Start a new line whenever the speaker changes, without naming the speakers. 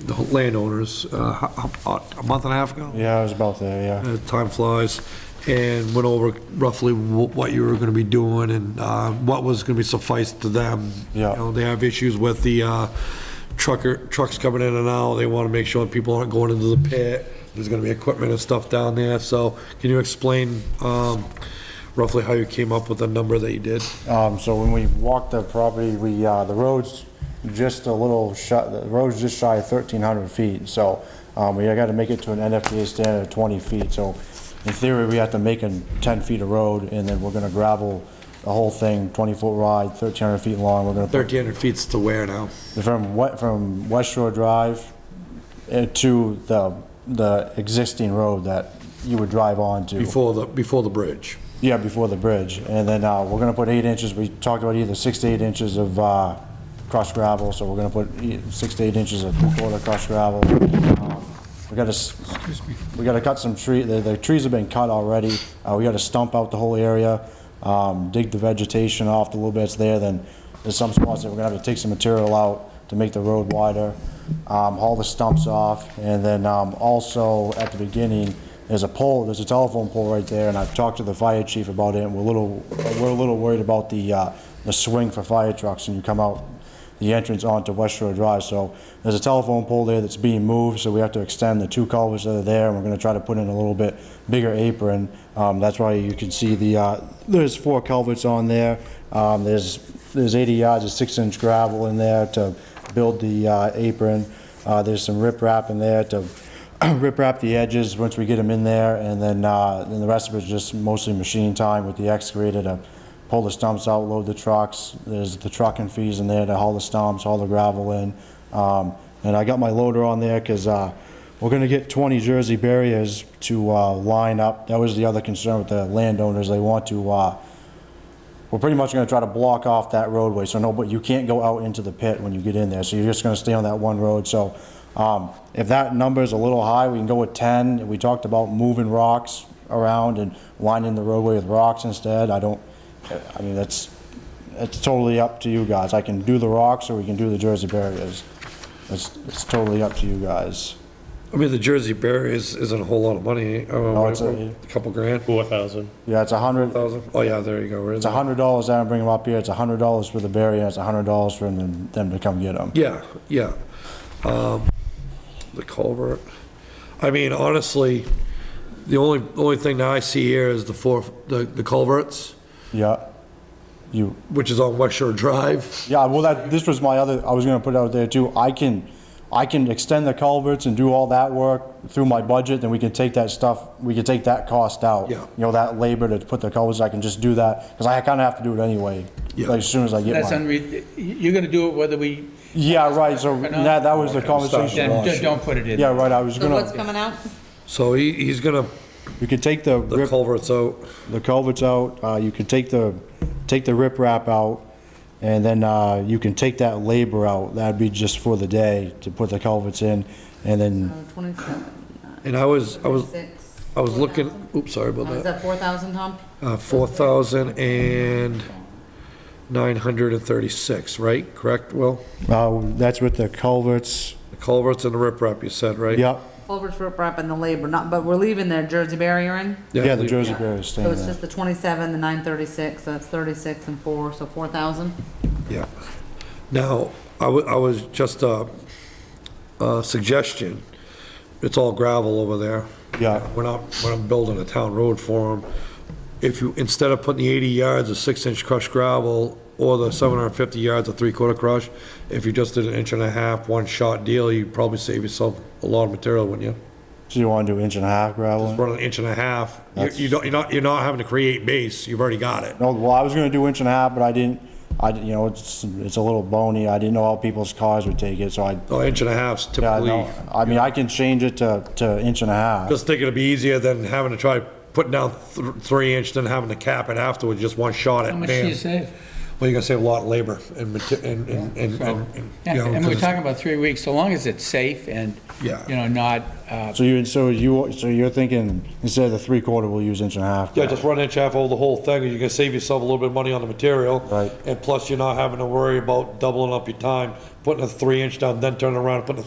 the landowners uh, ho- ho- a month and a half ago.
Yeah, I was about there, yeah.
Uh, Time flies, and went over roughly wh- what you were going to be doing and uh, what was going to be sufficed to them.
Yeah.
You know, they have issues with the uh, trucker, trucks coming in and out, they want to make sure that people aren't going into the pit, there's going to be equipment and stuff down there, so can you explain um, roughly how you came up with the number that you did?
Um, so when we walked the property, we, uh, the road's just a little shut, the road's just shy of thirteen hundred feet, so, um, we gotta make it to an NFPA standard of twenty feet, so in theory, we have to make a ten feet of road, and then we're gonna gravel the whole thing, twenty foot wide, thirteen hundred feet long, we're gonna put
1,300 feet's to where now?
From what, from West Shore Drive eh, to the, the existing road that you would drive onto.
Before the, before the bridge?
Yeah, before the bridge. And then, uh, we're gonna put eight inches, we talked about either six to eight inches of, uh, crushed gravel, so we're gonna put e- six to eight inches of quarter crushed gravel. Um, We gotta, s- we gotta cut some tree, the, the trees have been cut already, uh, we gotta stump out the whole area, um, dig the vegetation off the little bits there, then there's some spots that we're gonna have to take some material out to make the road wider, um, haul the stumps off, and then, um, also at the beginning, there's a pole, there's a telephone pole right there, and I've talked to the fire chief about it, and we're a little, we're a little worried about the, uh, the swing for fire trucks, and you come out the entrance onto West Shore Drive, so there's a telephone pole there that's being moved, so we have to extend the two culverts that are there, and we're gonna try to put in a little bit bigger apron. Um, that's why you can see the, uh, there's four culverts on there, um, there's, there's eighty yards of six-inch gravel in there to build the, uh, apron. Uh, there's some riprap in there to rip wrap the edges once we get them in there, and then, uh, then the rest of it's just mostly machine time with the excavator to pull the stumps out, load the trucks. There's the trucking fees in there to haul the stumps, haul the gravel in. Um, and I got my loader on there because, uh, we're gonna get twenty Jersey barriers to, uh, line up. That was the other concern with the landowners. They want to, uh, we're pretty much gonna try to block off that roadway, so no, but you can't go out into the pit when you get in there, so you're just gonna stay on that one road, so, um, if that number's a little high, we can go with ten, we talked about moving rocks around and lining the roadway with rocks instead, I don't, I mean, that's, it's totally up to you guys, I can do the rocks or we can do the Jersey barriers, it's, it's totally up to you guys.
I mean, the Jersey barriers isn't a whole lot of money, I mean,
Oh, it's a-
what- a couple grand,
Four thousand.
Yeah, it's a hundred,
thousand? Oh, yeah, there you go. we're in
it's a
there.
hundred dollars, I don't bring them up here, it's a hundred dollars for the barrier, it's a hundred dollars for them, them to come get them.
Yeah, yeah. Um, The culvert. I mean, honestly, the only, only thing that I see here is the four, the the culverts,
Yeah. You,
which is on West Shore Drive.
yeah, well, that, this was my other, I was gonna put it out there too. I can, I can extend the culverts and do all that work through my budget, then we can take that stuff, we can take that cost out.
Yeah.
You know, that labor to put the culverts, I can just do that, because I kinda have to do it anyway.
Yeah.
Like, as soon as I get
That's
mine.
unre, you're gonna do it whether we,
Yeah, right, so that, that was the conversation.
then d- don't put it in.
Yeah, right, I was
So what's
gonna,
coming out?
So he, he's gonna,
you could take the
the
rip,
culverts out.
the culverts out, uh, you could take the, take the rip wrap out, and then, uh, you can take that labor out. That'd be just for the day, to put the culverts in, and then
Oh, Twenty-seven,
And I was, I was,
six.
I was looking, oops, sorry
Uh,
Oh, Is
about that.
that four thousand, Tom?
Uh, Four thousand and nine hundred and thirty-six, right? Correct, Well,
Uh, that's with the culverts,
The culverts and the riprap, you said, right?
yep,
Culver's rip wrap and the labor, not, but we're leaving the Jersey barrier in.
yeah, the
leave-
Jersey barriers staying
So it's
there.
just the twenty-seven, the nine thirty-six, so that's thirty-six and four, so four thousand.
Yeah. Now, I wa- I was just a, a suggestion. It's all gravel over there.
Yeah.
We're not, when I'm building a town road for them, if you, instead of putting the 80 yards of six-inch crushed gravel or the 750 yards of three-quarter crush, if you just did an inch and a half, one-shot deal, you'd probably save yourself a lot of material, wouldn't you?
So you wanna do inch and a half gravel?
Run an inch and a half, you- you
That's-
don't, you're not, you're not having to create base, you've already got it.
No, well, I was gonna do inch and a half, but I didn't, I, didn't- you know, it's, it's a little bony, I didn't know how people's cars would take it, so I,
An Oh, inch and a half's
yeah, I
typically,
know. I mean, I can change it to, to inch and a half.
Just think it'd be easier than having to try putting down th- three inch, then having to cap it afterwards, just one shot at
How much do you
bam.
save?
Well, you're gonna save a lot of labor and, mate- and, and, and- and. you
Yeah,
know,
and we're
'cause-
talking about three weeks, so long as it's safe and, you
Yeah.
know, not, uh,
So you, so you, so you're thinking, instead of the three quarter, we'll use inch and a half?
Yeah,
gravel.
just run inch half over the whole thing, and you can save yourself a little bit of money on the material.
Right.
And plus, you're not having to worry about doubling up your time, putting a three inch down, then turning around, and putting a